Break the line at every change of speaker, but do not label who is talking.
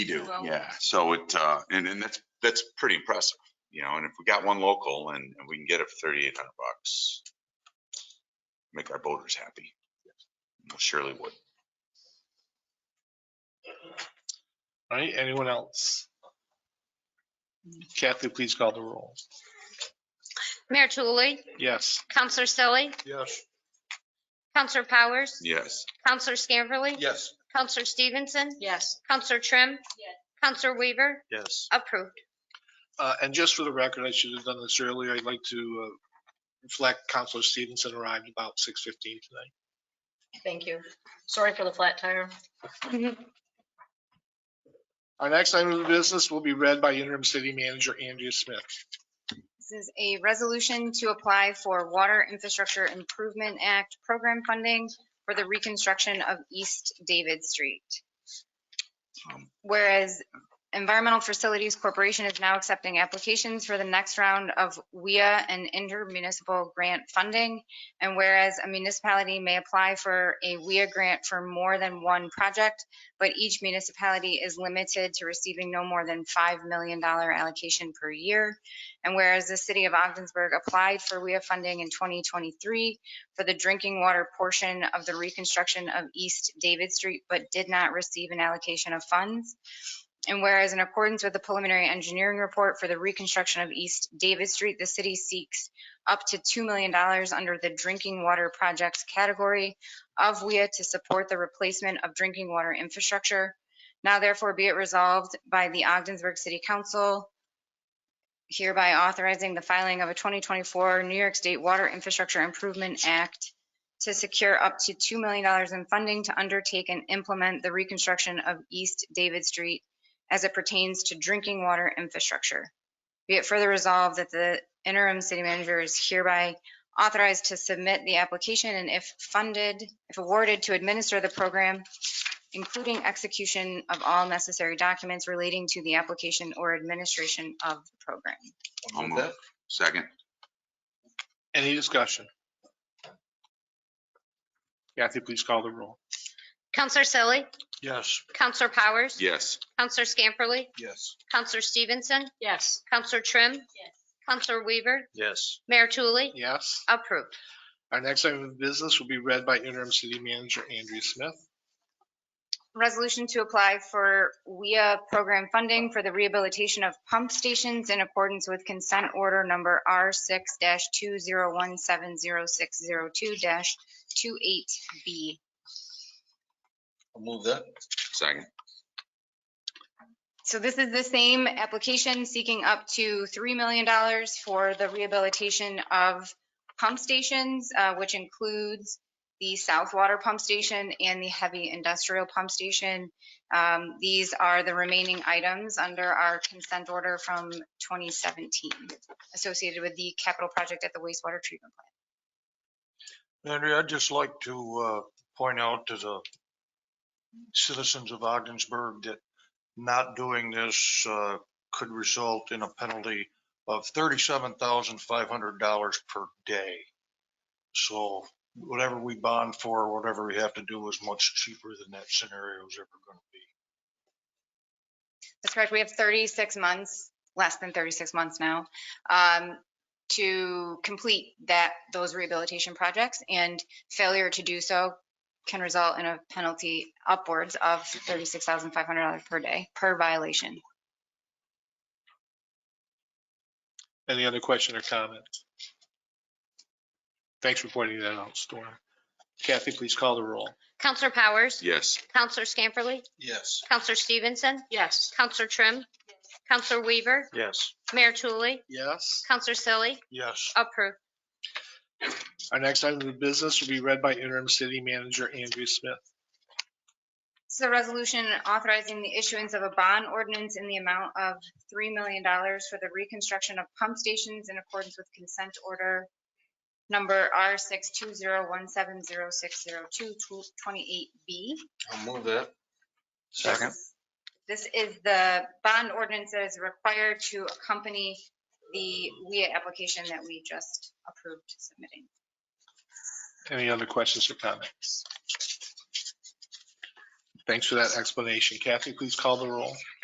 We do,
Well-
yeah. So it, uh, and, and that's, that's pretty impressive, you know, and if we got one local and, and we can get it for thirty-eight hundred bucks, make our voters happy. Well, Surely would.
All right, anyone else? Kathy, please call the roll.
Mayor Tulley,
Yes.
Counselor Selly,
Yes.
Counselor Powers,
Yes.
Counselor Scamperly,
Yes.
Counselor Stevenson,
Yes.
Counselor Trim,
Yes.
Counselor Weaver,
Yes.
approved.
Uh, And just for the record, I should have done this earlier. I'd like to uh, reflect Counselor Stevenson arrived about 6:15 tonight.
Thank you. Sorry for the flat tire.
Our next item of business will be read by interim city manager Andrea Smith.
This is a resolution to apply for Water Infrastructure Improvement Act program funding for the reconstruction of East David Street.
Um,
Whereas Environmental Facilities Corporation is now accepting applications for the next round of WIA and intermunicipal grant funding. And whereas a municipality may apply for a WIA grant for more than one project, but each municipality is limited to receiving no more than $5 million allocation per year. And whereas the city of Ogdensburg applied for WIA funding in 2023 for the drinking water portion of the reconstruction of East David Street, but did not receive an allocation of funds. And whereas in accordance with the preliminary engineering report for the reconstruction of East David Street, the city seeks up to $2 million under the drinking water projects category of WIA to support the replacement of drinking water infrastructure. Now therefore be it resolved by the Ogdensburg City Council hereby authorizing the filing of a 2024 New York State Water Infrastructure Improvement Act to secure up to $2 million in funding to undertake and implement the reconstruction of East David Street as it pertains to drinking water infrastructure. Be it further resolved that the interim city manager is hereby authorized to submit the application and if funded, if awarded, to administer the program, including execution of all necessary documents relating to the application or administration of the program.
I'll move. Second.
Any discussion? Kathy, please call the roll.
Counselor Selly,
Yes.
Counselor Powers,
Yes.
Counselor Scamperly,
Yes.
Counselor Stevenson,
Yes.
Counselor Trim, Counselor Weaver,
Yes.
Mayor Tulley,
Yes.
approved.
Our next item of business will be read by interim city manager Andrea Smith.
Resolution to apply for WIA program funding for the rehabilitation of pump stations in accordance with consent order number R six two zero one seven zero six zero two 28 B.
I'll move that. Second.
So this is the same application seeking up to $3 million for the rehabilitation of pump stations, uh, which includes the South Water Pump Station and the Heavy Industrial Pump Station. Um, These are the remaining items under our consent order from 2017 associated with the capital project at the wastewater treatment plant.
Andrea, I'd just like to uh, point out to the citizens of Ogdensburg that not doing this uh, could result in a penalty of $37,500 per day. So whatever we bond for, whatever we have to do is much cheaper than that scenario is ever going to be.
That's correct. We have 36 months, less than 36 months now, um, to complete that, those rehabilitation projects. And failure to do so can result in a penalty upwards of $36,500 per day, per violation.
Any other question or comment? Thanks for pointing that out, Storm. Kathy, please call the roll.
Counselor Powers,
Yes.
Counselor Scamperly,
Yes.
Counselor Stevenson,
Yes.
Counselor Trim, Counselor Weaver,
Yes.
Mayor Tulley,
Yes.
Counselor Selly,
Yes.
approved.
Our next item of business will be read by interim city manager Andrew Smith.
This is a resolution authorizing the issuance of a bond ordinance in the amount of $3 million for the reconstruction of pump stations in accordance with consent order number R62017060228B.
I'll move that.
Second.
This is the bond ordinance that is required to accompany the WIA application that we just approved submitting.
Any other questions or comments? Thanks for that explanation. Kathy, please call the roll.